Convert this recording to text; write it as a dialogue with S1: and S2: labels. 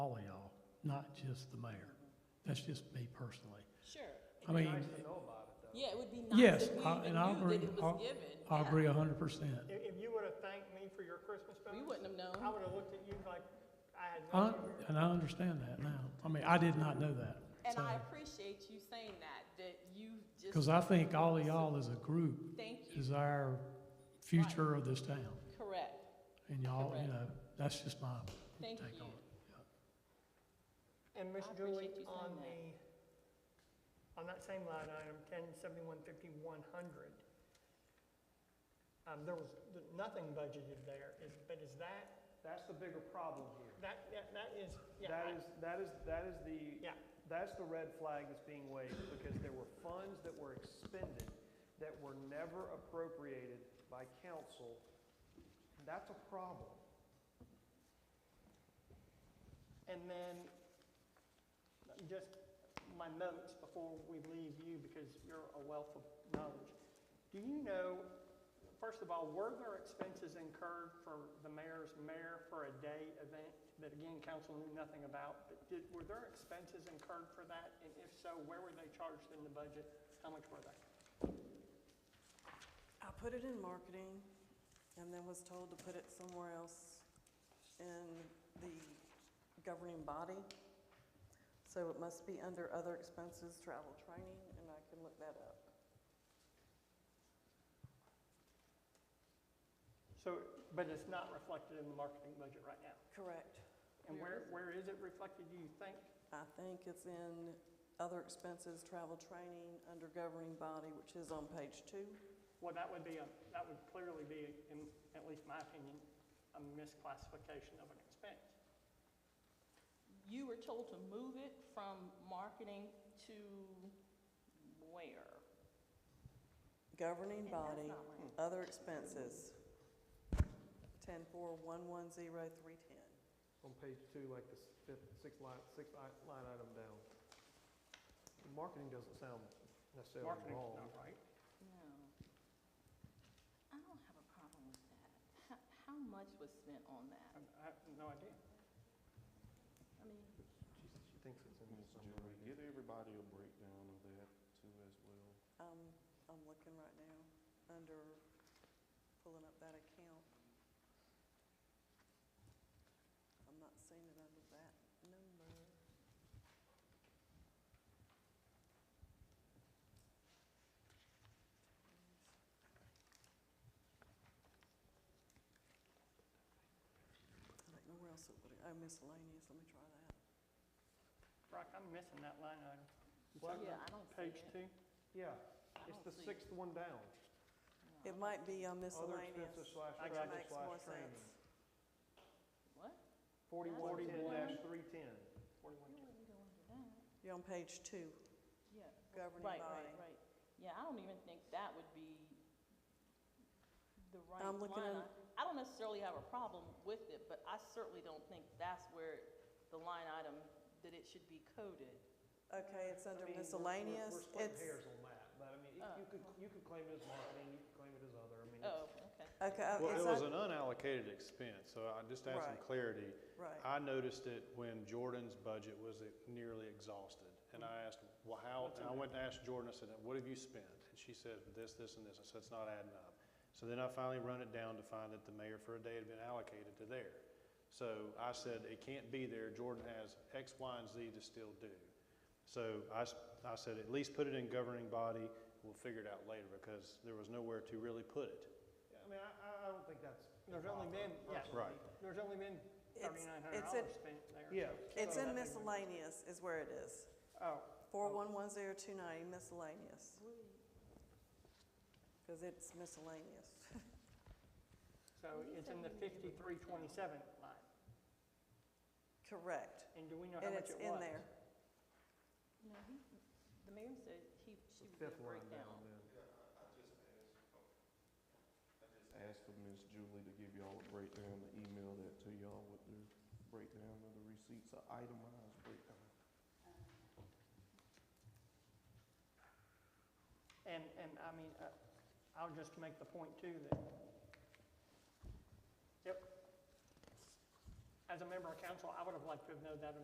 S1: not just the mayor. That's just me personally.
S2: Sure.
S1: I mean,
S2: Yeah, it would be nice
S1: yes,
S2: if we
S1: I-
S2: even
S1: and I
S2: knew
S1: agree,
S2: that it was
S1: I-
S2: given.
S1: I
S2: Yeah.
S1: agree a hundred percent.
S3: If, if you would've thanked me for your Christmas
S2: We
S3: bonus,
S2: wouldn't have
S3: I
S2: known.
S3: would've looked at you like I had
S1: I,
S3: no. idea.
S1: and I understand that now. I mean, I did not know that.
S2: And I
S1: So,
S2: appreciate you saying that, that you just.
S1: cause I think all of y'all as a group
S2: Thank you,
S1: is our future of this town.
S2: correct.
S1: And y'all,
S2: Correct.
S1: you know, that's just my
S2: Thank
S1: take on it.
S2: you.
S3: And Miss
S2: I
S3: Julie,
S2: appreciate you saying
S3: on
S2: that.
S3: the, on that same line item, ten seventy-one fifty-one hundred, um, there was th- nothing budgeted there, is, but is that,
S4: That's the bigger problem here.
S3: that, that- that is, yeah,
S4: That
S3: I-
S4: is, that is, that is the,
S3: Yeah.
S4: that's the red flag that's being waved, because there were funds that were expended that were never appropriated by council. That's a problem.
S3: And then, just my notes before we leave you, because you're a wealth of knowledge. Do you know, first of all, were there expenses incurred for the mayor's mayor for a day event that again, council knew nothing about? But did, were there expenses incurred for that? And if so, where were they charged in the budget? How much were they?
S5: I put it in marketing and then was told to put it somewhere else in the governing body. So it must be under other expenses, travel, training, and I can look that up.
S3: So, but it's not reflected in the marketing budget right now.
S5: Correct.
S3: And
S2: Where
S3: where, where is it reflected, do you think?
S5: I think it's in other expenses, travel, training, under governing body, which is on page two.
S3: Well, that would be a, that would clearly be, in at least my opinion, a misclassification of an expense.
S2: You were told to move it from marketing to where?
S5: Governing
S2: And that's
S5: body, Hmm.
S2: not right.
S5: other expenses. Ten four one one zero three ten.
S4: On page two, like the fifth, sixth line, sixth line item down. Marketing doesn't sound necessarily
S3: Marketing's not right.
S2: No. I don't have a problem with that. How, how much was spent on
S3: I
S2: that?
S3: I have no idea.
S2: I mean,
S4: She she thinks it's in
S6: Mr. Julie, get everybody a breakdown of that too as well.
S5: Um, I'm looking right now under pulling up that account. I'm not seeing it under that number. I don't know where else it would, oh, miscellaneous, let me try that.
S3: Brock, I'm missing that line item. Is
S4: What?
S3: that
S2: yeah,
S3: on
S2: I don't see
S3: Page
S2: it.
S3: two?
S4: Yeah,
S2: I
S4: it's
S2: don't
S4: the
S2: see it.
S4: sixth one down.
S2: No.
S5: It might be on
S4: Other
S5: miscellaneous,
S4: expenses
S5: which
S4: slash
S3: I got
S4: travel
S3: you.
S5: makes more
S4: slash training.
S5: sense.
S2: What?
S4: Forty-one ten dash three ten.
S3: Forty-one.
S2: Yeah, we go under that.
S5: You're on page two,
S2: Yeah.
S5: governing body.
S2: Right, right, right. Yeah, I don't even think that would be the right
S5: I'm looking
S2: line.
S5: at-
S2: I- I don't necessarily have a problem with it, but I certainly don't think that's where the line item, that it should be coded.
S5: Okay, it's
S4: I
S5: under
S4: mean, we're- we're-
S5: miscellaneous,
S4: We're
S5: it's,
S4: splitting hairs on that, but I mean,
S2: Oh.
S4: you could, you could claim it as marketing, you could claim it as other, I mean,
S2: Oh,
S4: it's,
S2: okay.
S5: okay, uh,
S6: Well,
S5: it's
S6: it was
S5: un-
S6: an unallocated expense, so I just add some
S5: Right.
S6: clarity.
S5: right,
S6: I noticed it when Jordan's budget was nearly exhausted. And I asked, well, how,
S4: What's
S6: and
S4: in
S6: I
S4: there?
S6: went to ask Jordan, I said, what have you spent? And she said, this, this, and this. I said, it's not adding up. So then I finally run it down to find that the mayor for a day had been allocated to there. So I said, it can't be there. Jordan has X, Y, and Z to still do. So I, s- I said, at least put it in governing body. We'll figure it out later because there was nowhere to really put it.
S4: I mean, I, I I don't think that's.
S3: There's only
S4: improper,
S3: been, yeah,
S4: personally.
S6: Right.
S3: there's only been
S5: It's-
S3: thirty-nine hundred
S5: it's in-
S3: dollars spent there.
S4: Yeah.
S5: it's
S3: So that thing was-
S5: in miscellaneous is where it is,
S3: Oh,
S5: four one one zero two ninety miscellaneous. Cause it's miscellaneous,
S3: so it's in the fifty-three twenty-seven line.
S5: correct,
S3: And do we know how
S5: and
S3: much
S5: it's
S3: it was?
S5: in there,
S2: No, he, the mayor said he, she
S4: It's
S2: would
S4: the
S2: do
S4: fifth
S2: a
S4: line down
S2: breakdown.
S4: then.
S6: Ask for Ms. Julie to give y'all a breakdown, to email that to y'all with the breakdown of the receipts, a itemized breakdown.
S3: And, and I mean, uh, I'll just make the point too that, yep. As a member of council, I would have liked to have known that